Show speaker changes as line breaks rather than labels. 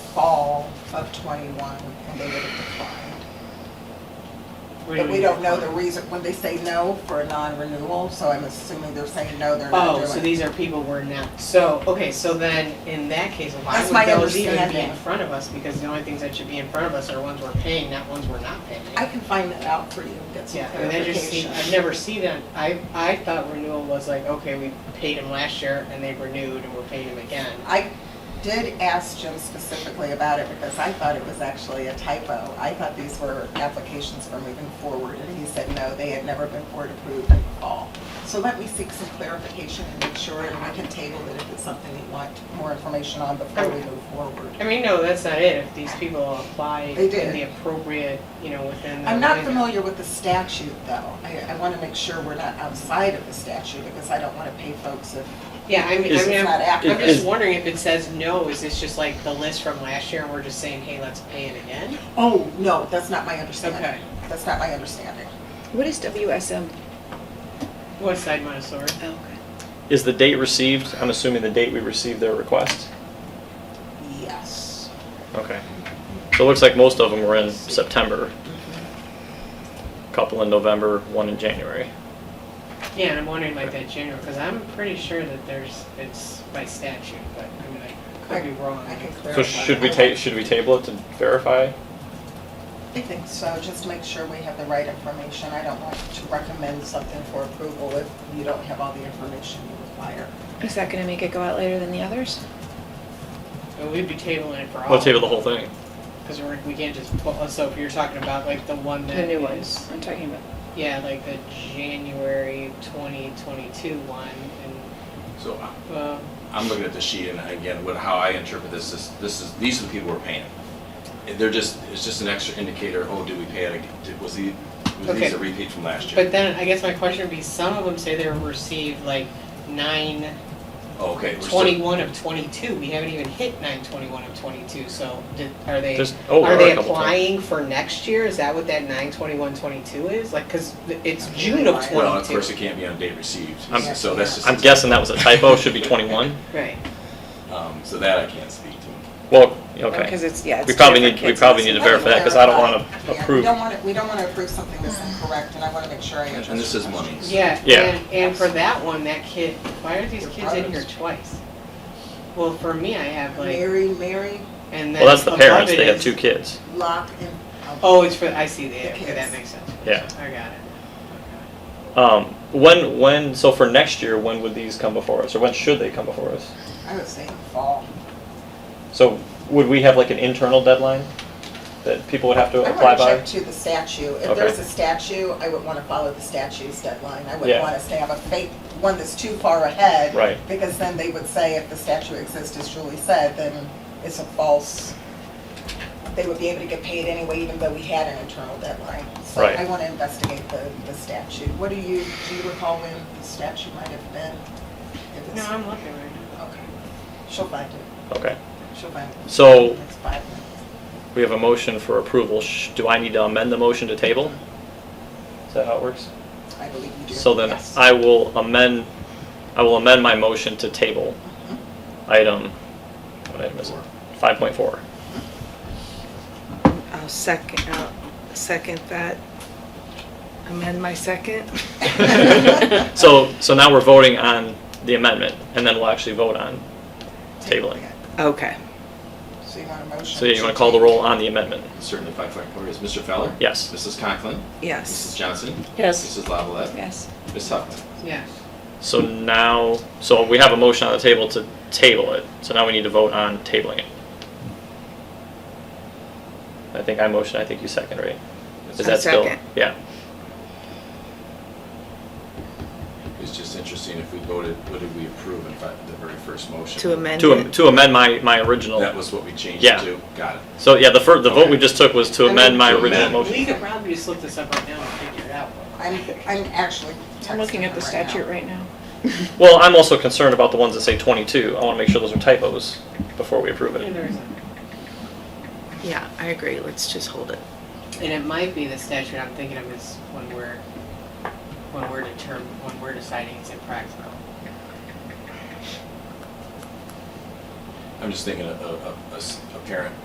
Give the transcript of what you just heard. fall of '21, and they would have declined.
What do
But
you
we
mean?
don't know the reason, when they say no for a non-renewal, so I'm assuming they're saying no, they're not
Oh,
doing it.
so these are people we're not, so, okay, so then, in that case, why
That's
would
my
those even be in
understanding.
front of us? Because the only things that should be in front of us are ones we're paying, not ones we're not paying.
I can find that out for you, and get some
Yeah, and I just see,
clarification.
I've never seen that, I, I thought renewal was like, okay, we paid them last year and they renewed and we're paying them again.
I did ask Jim specifically about it because I thought it was actually a typo. I thought these were applications for moving forward, and he said, no, they had never been board approved in the fall. So let me seek some clarification and make sure, and we can table it if it's something you want more information on before we move forward.
I mean, no, that's not it, if these people apply
They
in
did.
the appropriate, you know, within the.
I'm not
window.
familiar with the statute, though. I, I want to make sure we're not outside of the statute because I don't want to pay folks if,
Yeah, I mean, I
Is-
mean,
It's not
I'm,
accurate.
I'm just
Is-
wondering if it says no, is this just like the list from last year and we're just saying, hey, let's pay it again?
oh, no, that's not my understanding.
Okay.
That's not my understanding.
What is WSM?
West Side Montessori.
Oh,
Is the date received, I'm assuming the date we received their request?
Yes.
Okay. So it looks like most of them were in September. Couple in November, one in January.
Yeah, and I'm wondering like that general, because I'm pretty sure that there's, it's by statute, but I mean, I could be wrong.
I can clarify.
So should we ta, should we table it to verify?
I think so, just to make sure we have the right information. I don't want to recommend something for approval if you don't have all the information you require.
okay. Is that gonna make it go out later than the others?
But we'd be tabling it for all.
We'll table the whole thing.
Because we're, we can't just, pull- so if you're talking about like the one that. is-
I'm talking about.
Yeah, like the January twenty twenty-two one and,
So I-
uh,
I'm looking at the sheet and again, what, how I interpret this is, this is, these are the people we're paying. And They're just, it's just an extra indicator, oh, did we pay it, ag- did- was the, was
Okay.
these a repeat from last year?
but then I guess my question would be, some of them say they received like nine
Oh, Okay. we're still-
21 of 22, we haven't even hit 921 of 22, so did, are they,
There's- oh, there
are
are
they
a couple
applying for next year? Is that what that 92122 is? Like, because it's
Okay,
June of
why?
Well, of course,
22.
it can't be on date received,
I'm-
so that's just.
I'm guessing that was a typo, should be 21.
Right.
Um, so that I can't speak to.
Well,
Because
okay.
it's, yeah, it's.
We probably
two
need, we
different
probably need
kids.
to verify that because I don't want to
Yeah, we
approve.
don't want to, we don't want to approve something that's incorrect, and I want to make sure I address.
And this
your
is
question.
monies.
Yeah,
Yeah.
and, and for that one, that kid, why are these
Your
kids in here
products.
twice? Well, for me, I have like,
Mary, Mary,
and then
Well, that's the
above
parents,
it
they have
is-
two kids.
Locke, and.
Oh, it's for, I see, the okay,
kids.
that makes sense.
Yeah.
I got it.
Um, when, when, so for next year, when would these come before us, or when should they come before us?
I would say fall.
So would we have like an internal deadline that people would have to
I
apply
want to check
Oh, by?
to the statute. If
Okay.
there's a statute, I would want to follow the statute's deadline. I wouldn't
Yeah.
want us to have a fake, one that's too far ahead.
Right.
Because then they would say if the statute exists, as Julie said, then it's a false, they would be able to get paid anyway, even though we had an internal deadline. So
Right.
I want to investigate the, the statute. What do you, do you recall when the statute might have been? If
No,
it's-
I'm looking right now.
Okay. She'll find it.
Okay,
She'll find it.
so
It's five minutes.
we have a motion for approval. Sh- Do I need to amend the motion to table? Is that how it works?
I believe you do.
So then
Yes.
I will amend, I will amend my motion to table
Mm-hmm.
item, what item is it? 5.4.
I'll second, I'll second that. Amend my second.
So, so now we're voting on the amendment and then we'll actually vote on tabling.
Okay.
So you want a motion?
So yeah, you want to call the roll on the amendment?
Certainly, five point four is Mr. Feller?
Yes.
Mrs. Conklin? Mrs.
Yes.
Johnson?
Yes.
Mrs. Lavalette?
Yes.
Ms. Huffman?
Yeah.
So now, so we have a motion on the table to table it. So now we need to vote on tabling it. I think I motion, I think you second, right? Is
I
that still?
second.
Yeah.
It's just interesting, if we voted, what did we approve in fact, the very first motion?
To amend
To, am-
it.
to amend my, my original.
That was what we changed
Yeah.
it to? Got it.
So yeah, the first, the vote we
Okay.
just took was to
I mean,
amend my
to
original
amend.
motion.
We could probably just look this up right now and figure it out.
I'm, I'm actually
I'm looking
texting
at
her
the
right
statute
now.
right now.
Well, I'm also concerned about the ones that say 22. I want to make sure those are typos before we approve
And
it.
there's-
Yeah, I agree. Let's just hold it.
and it might be the statute I'm thinking of is when we're, when we're determined, when we're deciding it's impractical.
I'm just thinking a, a, a- a s- a parent